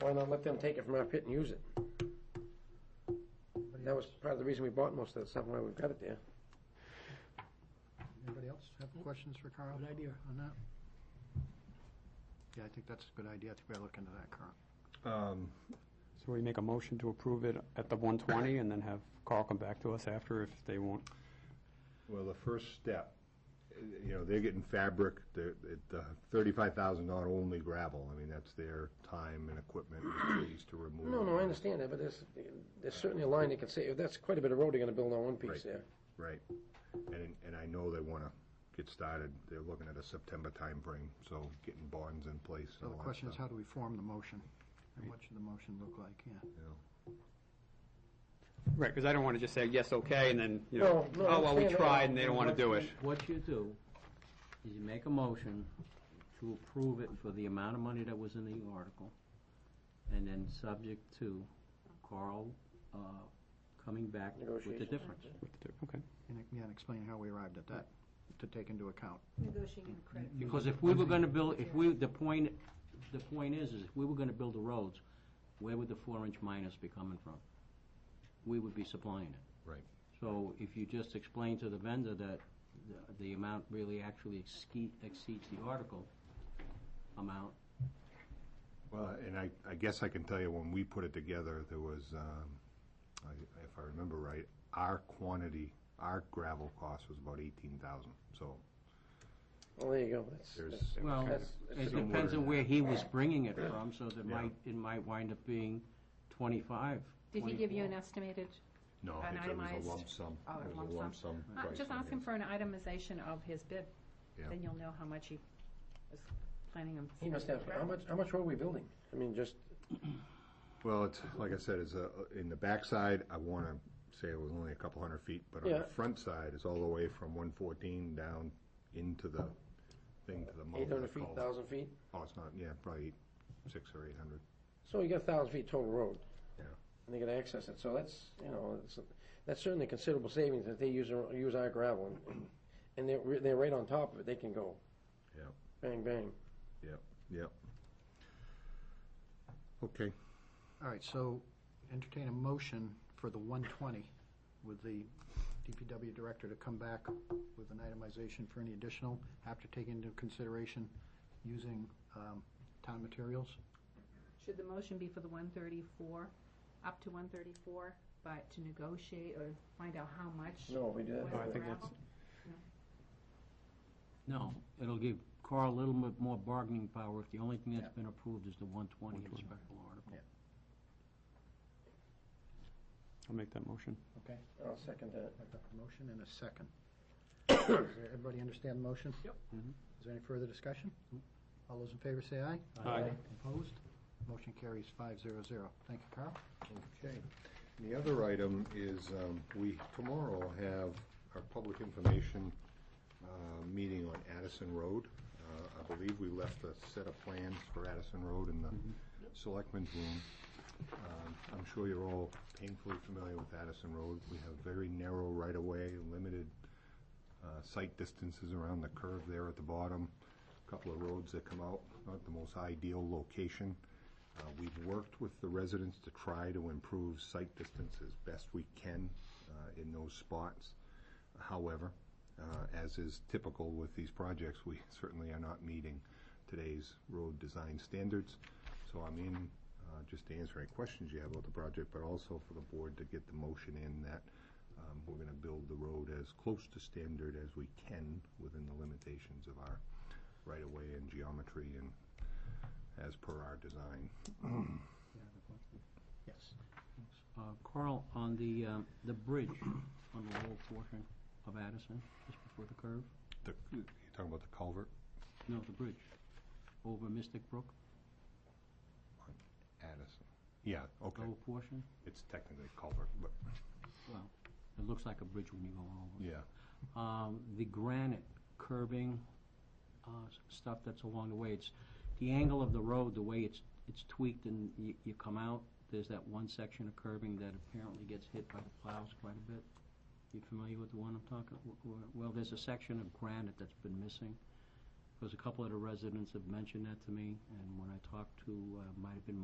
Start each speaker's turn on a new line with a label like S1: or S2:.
S1: Why not let them take it from our pit and use it? That was part of the reason we bought most of that stuff, why we've got it there.
S2: Anybody else have questions for Carl? Good idea. On that? Yeah, I think that's a good idea. I think we gotta look into that, Carl.
S3: Um,
S4: So we make a motion to approve it at the 120, and then have Carl come back to us after if they want.
S3: Well, the first step, eh, you know, they're getting fabric, the thirty-five thousand not only gravel. I mean, that's their time and equipment and trees to remove.
S1: No, no, I understand that, but there's, there's certainly a line they can say, that's quite a bit of road they're gonna build on one piece
S3: Right.
S1: there.
S3: Right. And, and I know they want to get started. They're looking at a September timeframe, so getting bonds in place.
S2: So the question is, how do we form the motion? And what should the motion look like? Yeah.
S4: Right, because I don't want to just say, yes, okay, and then, you know,
S1: know, No, no, I
S4: oh, well, we
S1: understand that.
S4: tried, and they don't want to do it.
S5: What you do is you make a motion to approve it for the amount of money that was in the article, and then subject to Carl uh, coming back with the
S1: Negotiation.
S5: difference.
S4: Okay.
S2: And, it- yeah, and explain how we arrived at that, to take into account.
S6: Negotiating credit.
S5: Because if we were gonna build, if we, the point, the point is, is if we were gonna build the roads, where would the four-inch minus be coming from? We would be supplying it.
S3: Right.
S5: So if you just explain to the vendor that the- the amount really actually exceed- exceeds the article amount,
S3: Well, and I, I guess I can tell you, when we put it together, there was, um, I- if I remember right, our quantity, our gravel cost was about eighteen thousand. So
S1: Well, there you go, that's,
S3: there's.
S1: that's-
S5: well,
S1: that's-
S5: it
S1: that's-
S5: depends on where he was bringing it from, so that
S3: Yeah.
S5: might, it might wind up being twenty-five.
S6: Did he give you
S5: 24.
S6: an estimated,
S3: No,
S6: An
S3: it was
S6: itemized-
S3: a lump sum.
S6: oh,
S3: It was
S6: lump
S3: a
S6: sum?
S3: lump sum.
S6: Uh,
S3: price
S6: just
S3: on
S6: ask
S3: it.
S6: him for an itemization of his bid.
S3: Yeah.
S6: Then you'll know how much he was planning on.
S1: He must have, how much, how much road are we building? I mean, just,
S3: Well, it's, like I said, it's a, in the backside, I want to say it was only a couple hundred feet, but on
S1: Yeah.
S3: the front side, it's all the way from one fourteen down into the thing to the mouth. of
S1: eight
S3: the
S1: hundred feet,
S3: cul-
S1: thousand feet?
S3: Oh, it's not, yeah, probably six or eight hundred.
S1: So you got a thousand feet total road.
S3: Yeah.
S1: And they gotta access it, so that's, you know, it's, that's certainly considerable savings if they use, our- use our gravel. and- And they're, re- they're right on top of it, they can go.
S3: Yeah.
S1: Bang, bang.
S3: Yep. Okay,
S2: All right, so entertain a motion for the 120 with the DPW director to come back with an itemization for any additional, after taking into consideration using um, town materials.
S6: Should the motion be for the one thirty-four, up to one thirty-four, but to negotiate or find out how much?
S1: No, we do that.
S6: was
S4: No, I
S6: the
S4: think that's-
S6: gravel?
S5: No, it'll give Carl a little bit more bargaining power if the only thing that's been approved is the one twenty in the special article.
S4: I'll make that motion.
S2: Okay.
S1: I'll second that.
S2: I've got a motion and a second. Does everybody understand the motion? Yep.
S4: Mhm.
S2: Is there any further discussion? All those in favor say aye.
S4: Aye. Aye.
S2: Opposed? Motion carries five zero zero. Thank you, Carl.
S3: okay. And The other item is, um, we tomorrow have our public information, uh, meeting on Addison Road. Uh, I believe we left a set of plans for Addison Road in the selectmen's room. Um, I'm sure you're all painfully familiar with Addison Road. We have very narrow right-of-way, limited uh, sight distances around the curve there at the bottom, a couple of roads that come out, not the most ideal location. Uh, We've worked with the residents to try to improve sight distance as best we can uh, in those spots. However, uh, as is typical with these projects, we certainly are not meeting today's road design standards. So I'm in uh, just to answer any questions you have about the project, but also for the board to get the motion in that um, we're going to build the road as close to standard as we can within the limitations of our right-of-way and geometry and as per our design.
S2: Yes.
S5: Uh, Carl, on the, um, the bridge on the lower portion of Addison, just before the curve,
S3: The, you're talking about the culvert
S5: no, the bridge over Mystic Brook,
S3: Addison? Yeah, okay.
S5: lower portion,
S3: It's technically culvert, but,
S5: well, it looks like a bridge when you go over.
S3: yeah.
S5: Um, the granite curbing, uh, s- stuff that's along the way, it's, the angle of the road, the way it's, it's tweaked and you, you come out, there's that one section of curbing that apparently gets hit by the plows quite a bit. You familiar with the one I'm talking, w- w- well, there's a section of granite that's been missing. Because a couple of the residents have mentioned that to me, and when I talked to, uh, might have been